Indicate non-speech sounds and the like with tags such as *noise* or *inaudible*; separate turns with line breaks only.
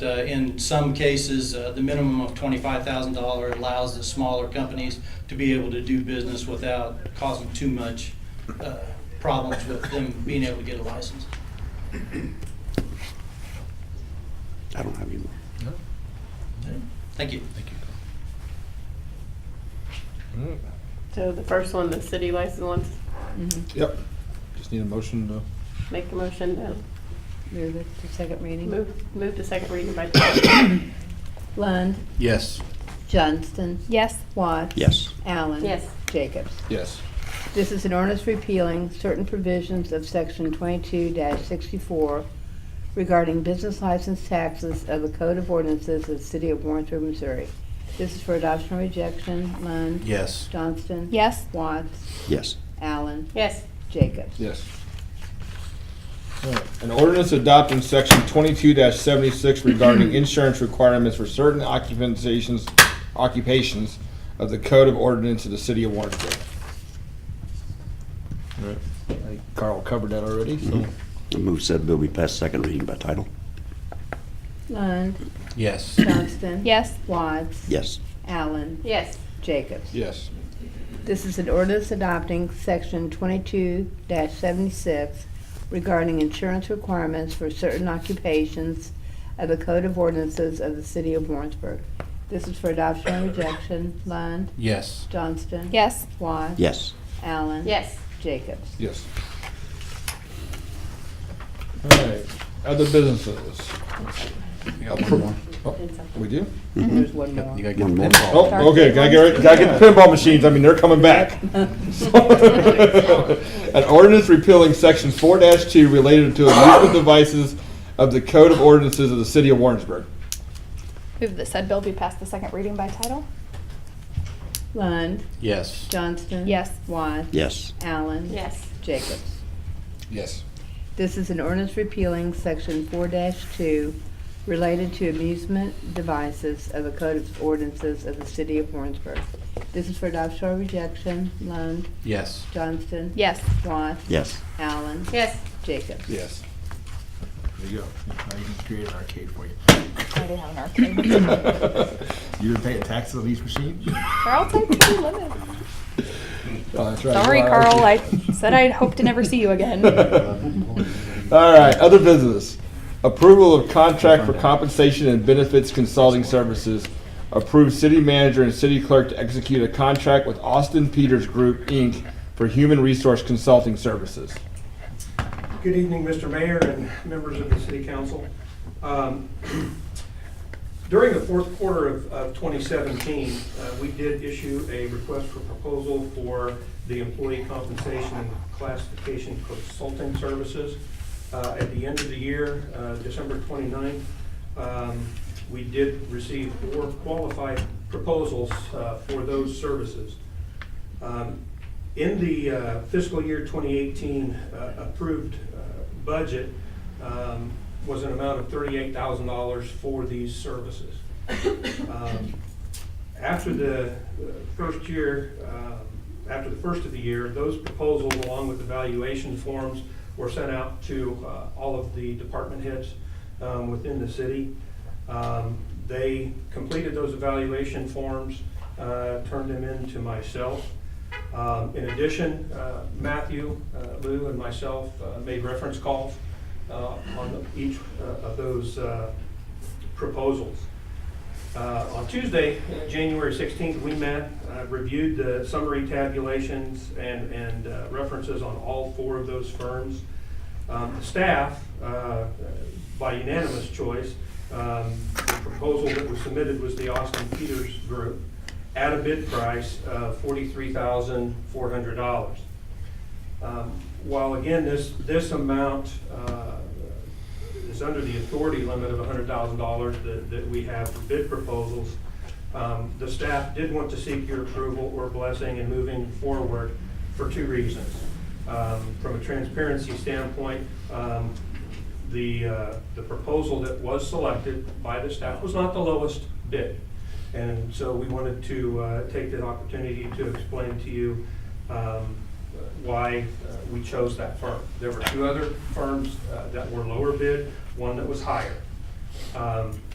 Uh, In some cases, uh, the minimum of $25,000 allows the smaller companies to be able to do business without causing too much uh, problems with them being able to get a license.
I don't have any more.
Thank you.
So the first one, the city license ones,
Yep. Just need a motion to.
make the motion to
Move it to second reading.
move, move to second reading by title. *coughs*
Lund,
Yes.
Johnston,
Yes.
Watts.
Yes.
Allen.
Yes.
Jacobs.
Yes.
This is an ordinance repealing certain provisions of section twenty-two sixty-four regarding business license taxes of the Code of Ordinances of the City of Warrensburg, Missouri. This is for adoption or rejection. Lund.
Yes.
Johnston.
Yes.
Watts.
Yes.
Allen.
Yes,
Jacobs.
Yes. An ordinance adopting section twenty-two seventy-six *clears throat* regarding insurance requirements for certain occupations, occupations of the Code of Ordinance of the City of Warrensburg. Alright, I think Carl covered that already, so.
I move said bill be passed second reading by title.
Lund.
Yes.
Johnston.
Yes.
Watts.
Yes.
Allen.
yes,
Jacobs.
Yes.
This is an ordinance adopting section twenty-two seventy-six regarding insurance requirements for certain occupations of the Code of Ordinances of the City of Warrensburg. This is for adoption or rejection. Lund,
Yes.
Johnston.
Yes.
Watts.
Yes.
Allen.
yes.
Jacobs.
Yes. Alright, other businesses. Oh, We do?
There's one more.
You gotta
One
get the
more.
pinball.
Oh, okay, gotta get, rid- gotta get the pinball machines, I mean, they're coming back. An ordinance repealing section four two related to amusement devices of the Code of Ordinances of the City of Warrensburg.
Move that said bill be passed the second reading by title.
Lund,
Yes.
Johnston.
Yes.
Watts.
Yes.
Allen.
Yes.
Jacobs.
Yes.
This is an ordinance repealing section four two related to amusement devices of the Code of Ordinances of the City of Warrensburg. This is for adoption or rejection. Lund,
Yes.
Johnston.
Yes.
Watts.
Yes.
Allen.
Yes.
Jacobs.
Yes. There you go, I can create an arcade for you.
already have an arcade.
You gonna pay a tax on these machines?
Carl said to limit. Sorry,
Oh, Sorry,
Carl. I said I'd hope to never see you again.
*laughs* All right, other business. Approval of contract for compensation and benefits consulting services. Approve city manager and city clerk to execute a contract with Austin Peters Group, Inc. for human resource consulting services.
Good evening, Mr. Mayor and members of the city council. Um, During the fourth quarter of of 2017, uh, we did issue a request for proposal for the employee compensation and classification consulting services. Uh, At the end of the year, uh, December 29th, um, we did receive four qualified proposals uh, for those services. Um, In the uh, fiscal year 2018 uh, approved uh, budget um, was an amount of $38,000 for these services. Um, After the uh, first year, um, after the first of the year, those proposals along with the valuation forms were sent out to uh, all of the department heads um, within the city. Um, They completed those evaluation forms, uh, turned them in to myself. Um, In addition, uh, Matthew, uh, Lou, and myself uh, made reference calls uh, on each uh, of those uh, proposals. Uh, On Tuesday, uh, January 16th, we met, uh, reviewed the summary tabulations and and uh, references on all four of those firms. Um, the Staff, uh, by unanimous choice, um, the proposal that was submitted was the Austin Peters Group at a bid price of $43,400. Um, While again, this, this amount uh, is under the authority limit of $100,000 that, that we have for bid proposals, um, the staff did want to seek your approval or blessing in moving forward for two reasons. Um, From a transparency standpoint, um, the, uh, the proposal that was selected by the staff was not the lowest bid. And so we wanted to uh, take the opportunity to explain to you um, why uh, we chose that firm. There were two other firms uh, that were lower bid, one that was higher. Um,